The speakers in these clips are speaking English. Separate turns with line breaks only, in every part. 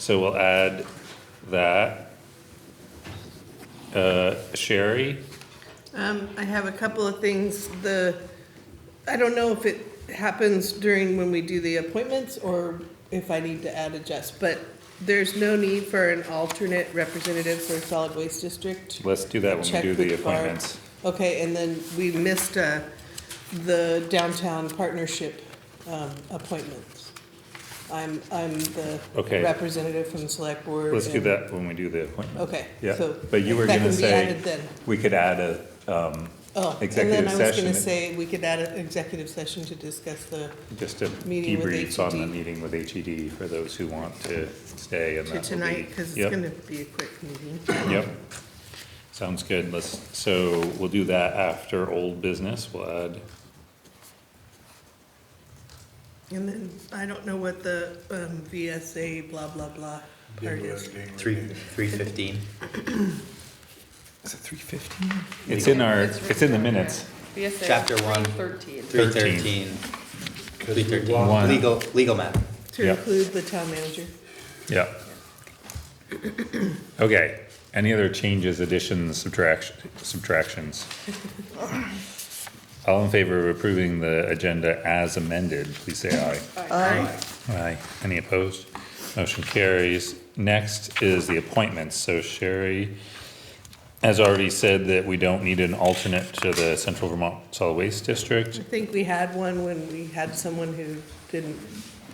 So we'll add that. Uh, Sherry,
Um, I have a couple of things, the, I don't know if it happens during when we do the appointments or if I need to add adjust, but there's no need for an alternate representative for solid waste district.
let's do that when we
Check
do the
with Barb.
appointments.
Okay, and then we missed, uh, the downtown partnership, um, appointments. I'm, I'm the
Okay.
representative from the select board.
Let's do
and-
that when we do the appointment.
Okay,
Yeah,
so
but you were
that
gonna
can be
say,
added then.
we could add a, um,
Oh, and then
executive
I was
session.
gonna say, we could add an executive session to discuss the,
just a
Meeting with E
debrief on the
HED.
meeting with HED for those who want to stay and that
to
will be.
tonight, because it's
Yep.
gonna be a quick meeting.
Yep. Sounds good. Let's, so we'll do that after old business. We'll add,
And then, I don't know what the um, VSA blah, blah, blah part is.
Three, three fifteen.
is it three fifteen? It's in our, it's in the minutes.
VSA.
Chapter one.
13.
Three
Thirteen.
thirteen. Three
One.
thirteen. Legal, legal matter.
To
Yeah.
include the town manager.
Yeah. Okay, any other changes, additions, subtraction, subtractions? All in favor of approving the agenda as amended, please say aye.
Aye.
Aye. Any opposed? Motion carries. Next is the appointments, so Sherry has already said that we don't need an alternate to the Central Vermont Solid Waste District.
I think we had one when we had someone who didn't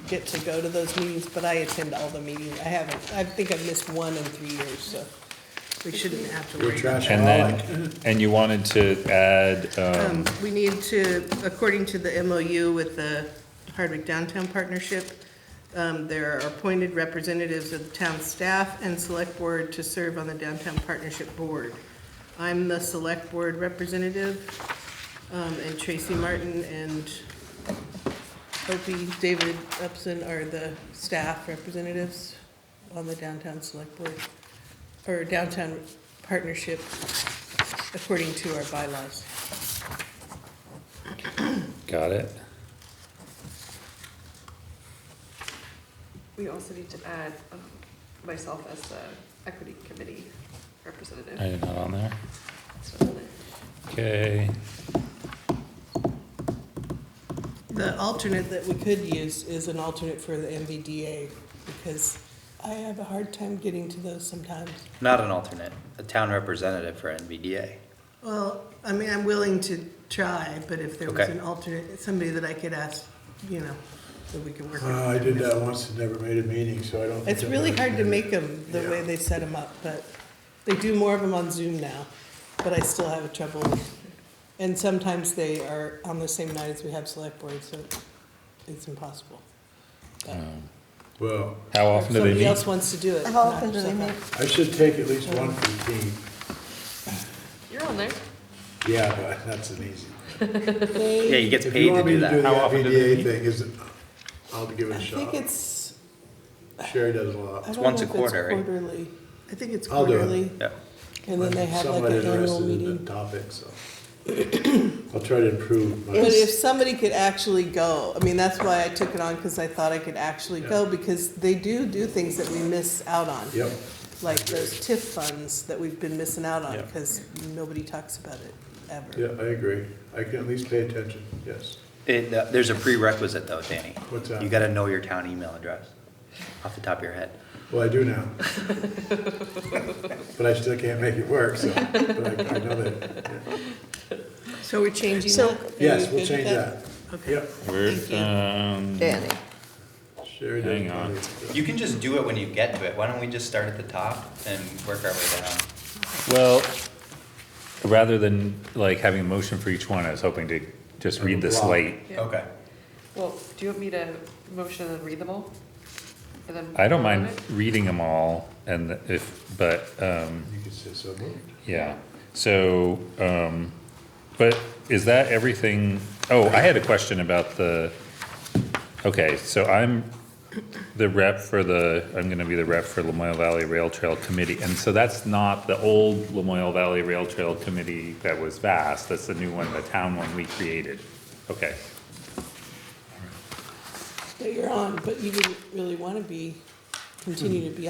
get to go to those meetings, but I attend all the meetings. I haven't, I think I've missed one in three years, so we shouldn't have to worry. about
And then, and you wanted to add, um,
Um, We need to, according to the MOU with the Hardwick Downtown Partnership, um, there are appointed representatives of the town staff and select board to serve on the Downtown Partnership Board. I'm the select board representative, um, and Tracy Martin and Opie David Upson are the staff representatives on the Downtown Select Board, or Downtown Partnership, according to our bylaws.
got it?
We also need to add um, myself as the equity committee representative.
I did not on there.
It's not on there.
Okay,
The alternate that we could use is an alternate for the MVDA, because I have a hard time getting to those sometimes.
Not an alternate, a town representative for NVDA.
Well, I mean, I'm willing to try, but if there was
Okay.
an alternate, somebody that I could ask, you know, that we could work with.
Uh, I did that once and never made a meeting, so I don't. think
It's
I've
really
ever
hard to
been-
make them the way
Yeah.
they set them up, but they do more of them on Zoom now, but I still have a trouble. with- And sometimes they are on the same night as we have select board, so it's impossible.
Well,
how
Or
often do they
Somebody
meet?
else wants to do it.
How often do they
knock
meet?
yourself
I should take at least one for the team.
You're on there.
Yeah, but that's an easy.
out. They-
Yeah, he gets
If
paid
you
to
want me
do
to do the
that.
How often do they
NVDA
meet?
thing, is, I'll give it
I
a
think
shot.
it's.
Sherry does a
I
lot.
don't know
once a
if it's
quarter, right?
Quarterly, I think it's
I'll do it.
quarterly,
Yeah.
and then they have like
Somebody
an annual
interested in the
meeting.
topic, so. I'll try to improve
But if
my,
somebody could actually go, I mean, that's why I took it on, because I thought I could actually go, because they do do things that we miss out on.
yep,
Like those TIF funds that we've been missing out on,
Yeah.
because nobody talks about it ever.
yeah, I agree. I can at least pay attention, yes.
It, uh, there's a prerequisite though, Danny.
What's that?
You gotta know your town email address off the top of your head.
Well, I do now. But I still can't make it work, so, but I I know that. yeah.
So we're changing
So-
that? Are
Yes,
you
we'll
good with
change that.
Okay.
Yep,
We're,
Thank you.
um,
Danny.
Sherry does.
Hang on.
plenty of stuff.
You can just do it when you get to it. Why don't we just start at the top and work our way down?
well, rather than like having a motion for each one, I was hoping to just read the
Block.
slate.
Yeah.
Okay.
Well, do you want me to motion and read them all? And then
I don't
vote on
mind
it?
reading them all and if, but, um,
You could say so moved.
yeah. So, um, but is that everything? Oh, I had a question about the, okay, so I'm the rep for the, I'm gonna be the rep for Lamoille Valley Rail Trail Committee. And so that's not the old Lamoille Valley Rail Trail Committee that was vast, that's the new one, the town one we created. Okay,
That you're on, but you didn't really want to be continue to be